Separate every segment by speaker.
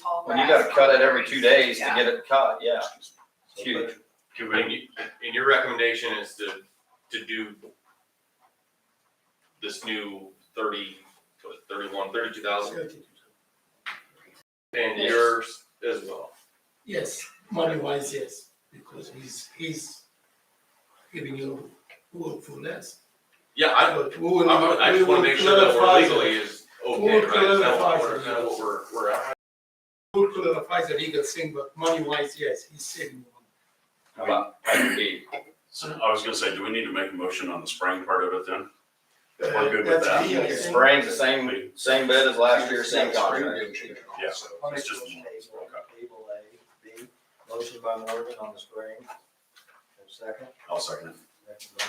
Speaker 1: tall
Speaker 2: When you
Speaker 1: grass.
Speaker 2: gotta cut it every two days to
Speaker 1: Yeah.
Speaker 2: get it cut, yeah, it's huge.
Speaker 3: Okay, but in, in your recommendation is to, to do this new thirty, what, thirty-one, thirty-two thousand, and
Speaker 4: Yes.
Speaker 3: yours as well.
Speaker 4: Yes, money wise, yes, because he's, he's giving you work for less.
Speaker 3: Yeah, I,
Speaker 4: But we will-
Speaker 3: I would- I just wanna
Speaker 4: we
Speaker 3: make
Speaker 4: will
Speaker 3: sure that we're
Speaker 4: clarify
Speaker 3: legally
Speaker 4: that-
Speaker 3: is okay, right? Is that what we're, is that what we're, we're at?
Speaker 4: we will clarify the legal thing, but money wise, yes, he's saving. money.
Speaker 2: How about item B?
Speaker 5: So I was gonna say, do we need to make a motion on the spring part of it then? We're
Speaker 4: Uh,
Speaker 5: good with
Speaker 4: that's
Speaker 5: that.
Speaker 4: legal.
Speaker 1: Yes.
Speaker 2: Spraying's the same, same bid as last year, same contract.
Speaker 5: Yeah.
Speaker 6: I'll make
Speaker 5: It's
Speaker 6: a
Speaker 5: just-
Speaker 6: motion table,
Speaker 5: okay.
Speaker 6: table A, B, motion by Morgan on the spring. Have a Second,
Speaker 5: I'll second it.
Speaker 6: Next by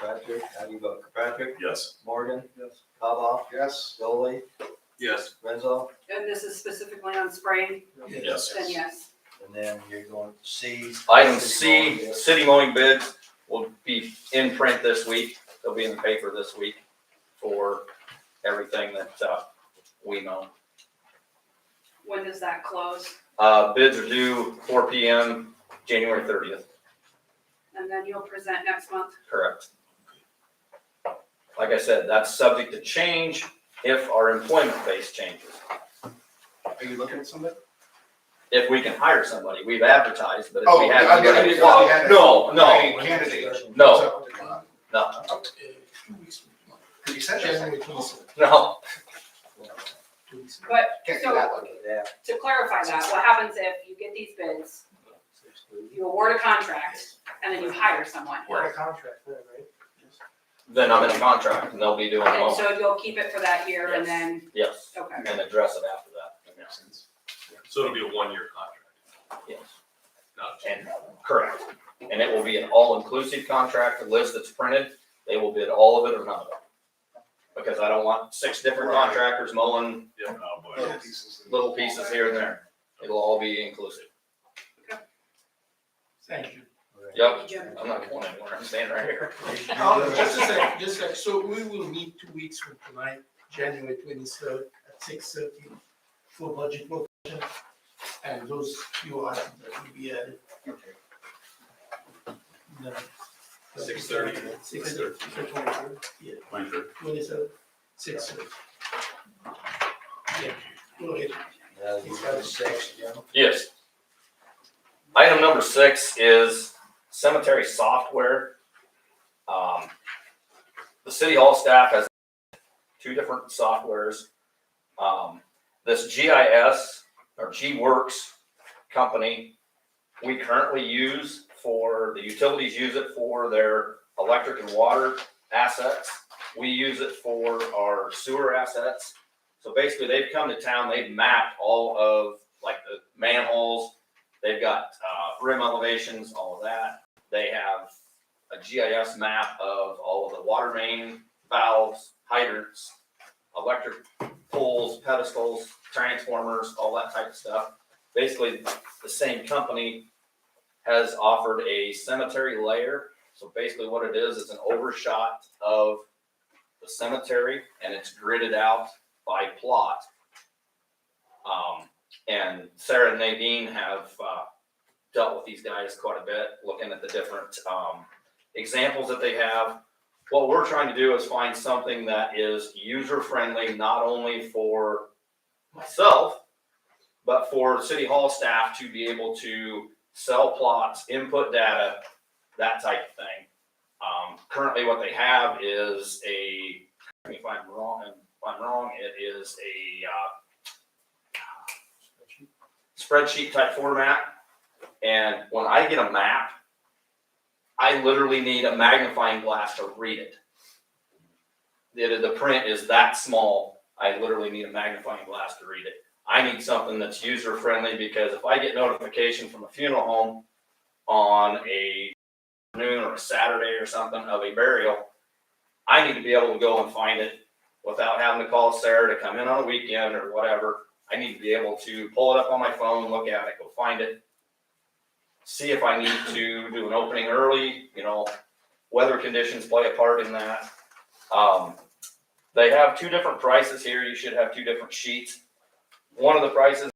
Speaker 6: Kirkpatrick, how do you vote? Kirkpatrick,
Speaker 5: Yes.
Speaker 6: Morgan? Yes. Kava? Yes. Dolly,
Speaker 3: Yes,
Speaker 6: Renzo,
Speaker 1: And this is specifically on spraying,
Speaker 5: Yes.
Speaker 1: then yes.
Speaker 6: and then you're going to C.
Speaker 2: Item
Speaker 6: City
Speaker 2: C,
Speaker 6: Hall, yes.
Speaker 2: city mowing bids will be in print this week. They'll be in the paper this week for everything that, uh, we mow.
Speaker 1: When does that close?
Speaker 2: Uh, bids are due four P M, January thirtieth,
Speaker 1: And then you'll present next month.
Speaker 2: correct? Like I said, that's subject to change if our employment base changes.
Speaker 7: Are you looking at somebody?
Speaker 2: If we can hire somebody, we've advertised, but if
Speaker 7: Oh,
Speaker 2: we have.
Speaker 7: I didn't- I
Speaker 2: somebody-
Speaker 7: didn't know we had-
Speaker 2: No,
Speaker 3: Oh,
Speaker 2: no,
Speaker 7: Hey, Candidate.
Speaker 2: No.
Speaker 4: Uh,
Speaker 2: no,
Speaker 4: two weeks from now.
Speaker 7: Cause you said that.
Speaker 4: January 20th,
Speaker 2: no.
Speaker 4: two weeks from
Speaker 1: But
Speaker 7: Can't do
Speaker 1: so
Speaker 7: that one.
Speaker 6: Yeah.
Speaker 1: to clarify that, what happens if you get these bids, you award a contract, and then you hire someone?
Speaker 7: We're in a contract there, right?
Speaker 2: Then I'm in a contract and they'll be doing
Speaker 1: And
Speaker 2: mowing,
Speaker 1: so you'll keep it for that year and
Speaker 2: Yes.
Speaker 1: then,
Speaker 2: yes,
Speaker 1: okay.
Speaker 2: and address it after that.
Speaker 7: Makes sense.
Speaker 3: so it'll be a one-year contract,
Speaker 2: Yes.
Speaker 3: not a
Speaker 2: And, correct. And it will be an all-inclusive contract, the list that's printed, they will bid all of it or none of it. Because I don't want six different contractors mowing
Speaker 5: Oh, boy.
Speaker 7: Little pieces.
Speaker 2: little pieces here and there. It'll all be inclusive.
Speaker 4: now. Thank you.
Speaker 2: Yep, I'm not going anywhere, I'm staying right here.
Speaker 4: Um, Just a sec, just a sec, so we will meet two weeks from tonight, January twenty-third at six thirty for budget motion. And those few items that will be added.
Speaker 3: Six thirty.
Speaker 4: Six thirty. Yeah,
Speaker 5: Thank you.
Speaker 4: twenty-third, six thirty. Yeah, go ahead.
Speaker 6: Uh, you got a six, yeah.
Speaker 2: Yes. Item number six is cemetery software. Um, The city hall staff has two different softwares. Um, This GIS or G-Works company, we currently use for, the utilities use it for their electric and water assets. We use it for our sewer assets. So basically, they've come to town, they've mapped all of like the manholes. They've got uh, rim elevations, all of that. They have a GIS map of all of the water main valves, hydrants, electric poles, pedestals, transformers, all that type of stuff. Basically, the same company has offered a cemetery layer. So basically, what it is is an overshot of the cemetery, and it's gridded out by plot. Um, and Sarah and Nadine have uh, dealt with these guys quite a bit, looking at the different um, examples that they have. What we're trying to do is find something that is user friendly, not only for myself, but for city hall staff to be able to sell plots, input data, that type of thing. Um, currently, what they have is a. If I'm wrong, if I'm wrong, it is a. Uh, spreadsheet type format. And when I get a map, I literally need a magnifying glass to read it. The, the print is that small. I literally need a magnifying glass to read it. I need something that's user friendly because if I get notification from a funeral home on a noon or a Saturday or something of a burial, I need to be able to go and find it without having to call Sarah to come in on a weekend or whatever. I need to be able to pull it up on my phone, look at it, go find it. See if I need to do an opening early, you know, weather conditions play a part in that. Um, they have two different prices here. You should have two different sheets. One of the prices